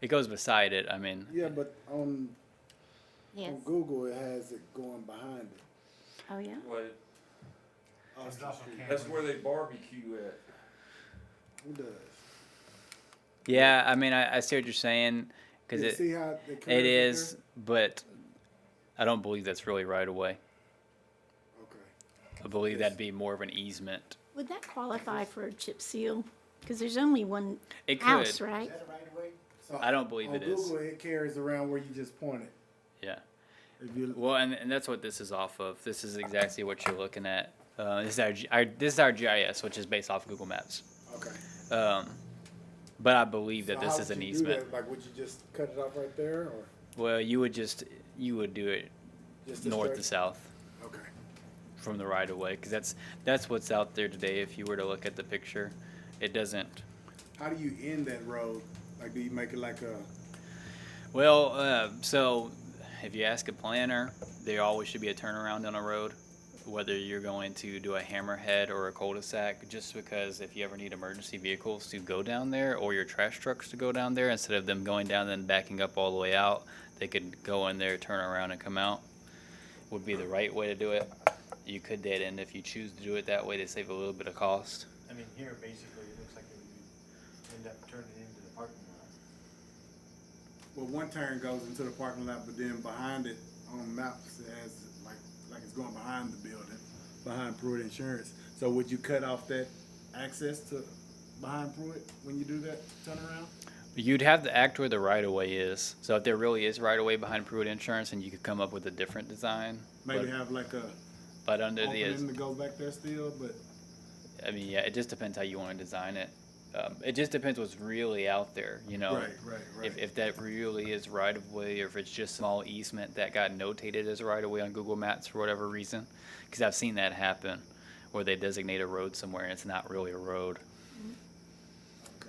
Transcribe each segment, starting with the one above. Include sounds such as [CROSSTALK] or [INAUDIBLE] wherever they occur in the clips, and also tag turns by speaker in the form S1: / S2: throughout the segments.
S1: it goes beside it. I mean,
S2: Yeah, but on,
S3: Yes.
S2: on Google, it has it going behind it.
S3: Oh, yeah?
S4: Like,
S2: Austin
S5: Oh, It's also
S2: Street.
S5: Cam-
S4: that's where they barbecue at.
S2: Who does?
S1: yeah. I mean, I, I see what you're saying because
S2: You
S1: it
S2: see how the curves are
S1: it is, but I don't believe that's really right away.
S2: there? Okay.
S1: I believe that'd be more of an easement.
S3: Would that qualify for a chip seal? Because there's only one
S1: It could.
S3: house, right?
S5: that a right of way?
S2: So
S1: I don't believe
S2: on
S1: it is.
S2: Google, it carries around where you just point it.
S1: Yeah.
S2: If you
S1: Well, and, and that's what this is off of. This is exactly what you're looking at. Uh, this is our, G- our this is our GIS, which is based off Google Maps.
S2: okay.
S1: Um, but I believe that
S2: So
S1: this
S2: how
S1: is
S2: would
S1: an
S2: you do that?
S1: easement.
S2: Like, would you just cut it off right there, or
S1: Well, you would just you would do it
S2: just this
S1: north
S2: straight?
S1: to south
S2: Okay.
S1: from the right of way because that's that's what's out there today. If you were to look at the picture, it doesn't.
S2: How do you end that road? Like, do you make it like a?
S1: Well, uh, so if you ask a planner, there always should be a turnaround on a road, whether you're going to do a hammerhead or a cul-de-sac, just because if you ever need emergency vehicles to go down there or your trash trucks to go down there, instead of them going down and backing up all the way out, they could go in there, turn around, and come out. Would be the right way to do it. You could dead end if you choose to do it that way to save a little bit of cost.
S5: I mean, here basically it looks like it would end up turning into the parking lot.
S2: Well, one turn goes into the parking lot, but then behind it on maps it has like like it's going behind the building, behind Pruitt Insurance. So would you cut off that access to behind Pruitt when you do that turnaround?
S1: You'd have to act where the right of way is. So if there really is right of way behind Pruitt Insurance, and you could come up with a different design.
S2: Maybe
S1: but,
S2: have like a
S1: but under the,
S2: opening that goes back there still, but
S1: I mean, yeah, it just depends how you want to design it. Um, it just depends what's really out there, you know.
S2: right, right, right.
S1: If, if that really is right of way, or if it's just small easement that got notated as right of way on Google Maps for whatever reason, because I've seen that happen, where they designate a road somewhere and it's not really a road.
S2: okay.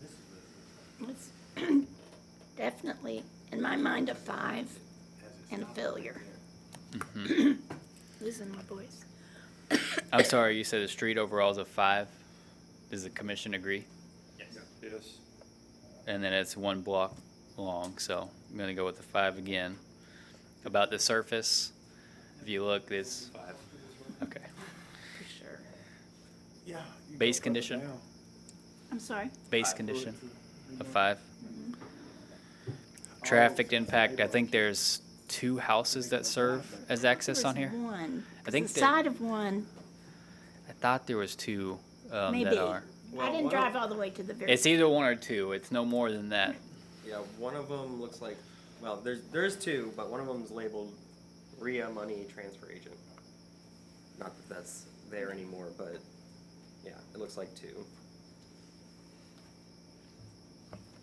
S5: This is what it looks
S3: It's [CLEARS THROAT] Definitely, in my mind, a five
S5: like. as it
S3: and a
S5: stops right
S3: failure.
S5: there.
S2: Mm-hmm.
S3: Losing my voice.
S1: I'm sorry, you said the street overall is a five. Does the commission agree?
S4: Yes.
S1: and then it's one block long. So I'm gonna go with the five again. About the surface, if you look, it's five. Okay.
S3: For sure.
S2: Yeah. you
S1: Base
S2: go further
S1: condition?
S2: down.
S3: I'm sorry?
S1: Base
S4: Five.
S1: condition
S2: You
S1: of
S2: know,
S1: five.
S2: all
S1: Traffic
S2: those-
S1: impact. I think there's two houses that serve as access
S3: There's
S1: on here.
S3: One.
S1: I think
S3: The
S1: that-
S3: side of one,
S1: I thought there was two um,
S3: maybe.
S1: that are.
S3: I
S6: Well,
S3: didn't
S6: one of-
S3: drive all the way to the very.
S1: It's either one or two. It's no more than that.
S6: Yeah, one of them looks like, well, there's there's two, but one of them's labeled RIA Money Transfer Agent. Not that that's there anymore, but yeah, it looks like two,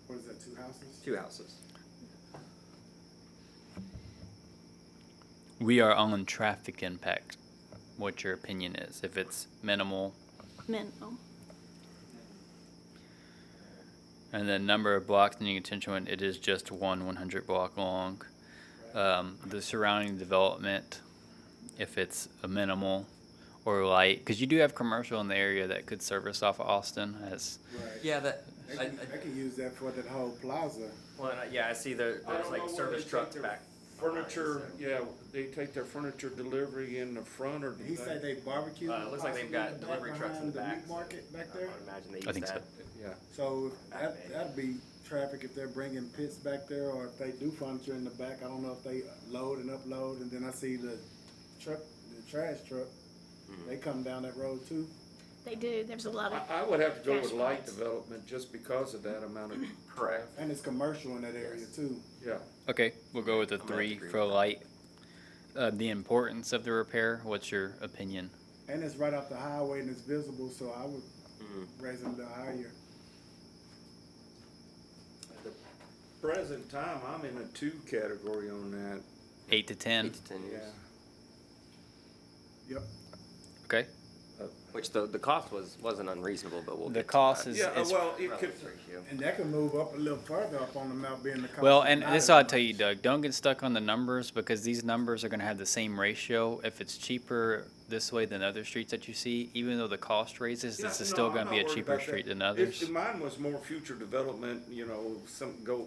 S2: What is that? Two houses.
S6: two houses.
S1: We are on traffic impact. What your opinion is? If it's minimal,
S3: Minimal.
S1: And then number of blocks needing attention, it is just one one hundred block long. Um, the surrounding development, if it's a minimal or light, because you do have commercial in the area that could service off of Austin as,
S2: Right.
S6: Yeah, that.
S2: They
S6: I, I,
S2: can, they can use that for that whole plaza.
S6: well, and I- yeah, I see there,
S4: I
S6: there's
S4: don't know
S6: like
S4: where
S6: service
S4: they take
S6: trucks
S4: their
S6: back.
S4: Furniture, yeah, they take their furniture delivery in the front or. do
S2: He
S4: they-
S2: said they barbecue.
S6: Uh, it looks like they've got
S2: possibly back
S6: delivery trucks in the
S2: behind meat
S6: back. Uh, so
S2: Market back
S6: I
S2: there.
S6: would imagine they
S1: I
S6: use
S1: think so.
S6: that.
S4: Yeah.
S2: So that, that'd be traffic if they're bringing pits back there, or if they do furniture in the back, I don't know if they load and upload, and then I see the truck, the trash truck, they come down that road too.
S3: They do, there's a lot of,
S4: I, I would have to go with
S3: Cash
S4: light
S3: points.
S4: development just because of that amount of.
S6: Correct.
S2: And it's commercial in that area too.
S4: Yeah,
S1: okay, we'll go with the
S6: I'm gonna
S1: three
S6: agree
S1: for
S6: with that.
S1: light. Uh, the importance of the repair, what's your opinion?
S2: And it's right off the highway and it's visible, so I would
S6: Mhm.
S2: raise it a little higher.
S4: at the present time, I'm in a two category on that,
S1: Eight to ten,
S6: Eight to ten years.
S4: yeah.
S2: Yep,
S1: okay?
S6: Uh, Which the, the cost was, wasn't unreasonable, but we'll
S1: The
S6: get to
S1: cost
S6: that.
S1: is,
S4: Yeah, uh,
S1: is
S4: well, it could,
S6: Relative ratio.
S2: and that can move up a little further up on the map being the.
S1: Well,
S2: cost
S1: and
S2: not
S1: this
S2: as
S1: is what I'll tell you,
S2: much.
S1: Doug. Don't get stuck on the numbers because these numbers are going to have the same ratio. If it's cheaper this way than other streets that you see, even though the cost raises, this
S4: No,
S1: is still
S4: no,
S1: going
S4: I'm
S1: to be a
S4: not worried
S1: cheaper
S4: about that.
S1: street than
S4: If-
S1: others.
S4: If mine was more future development, you know, some go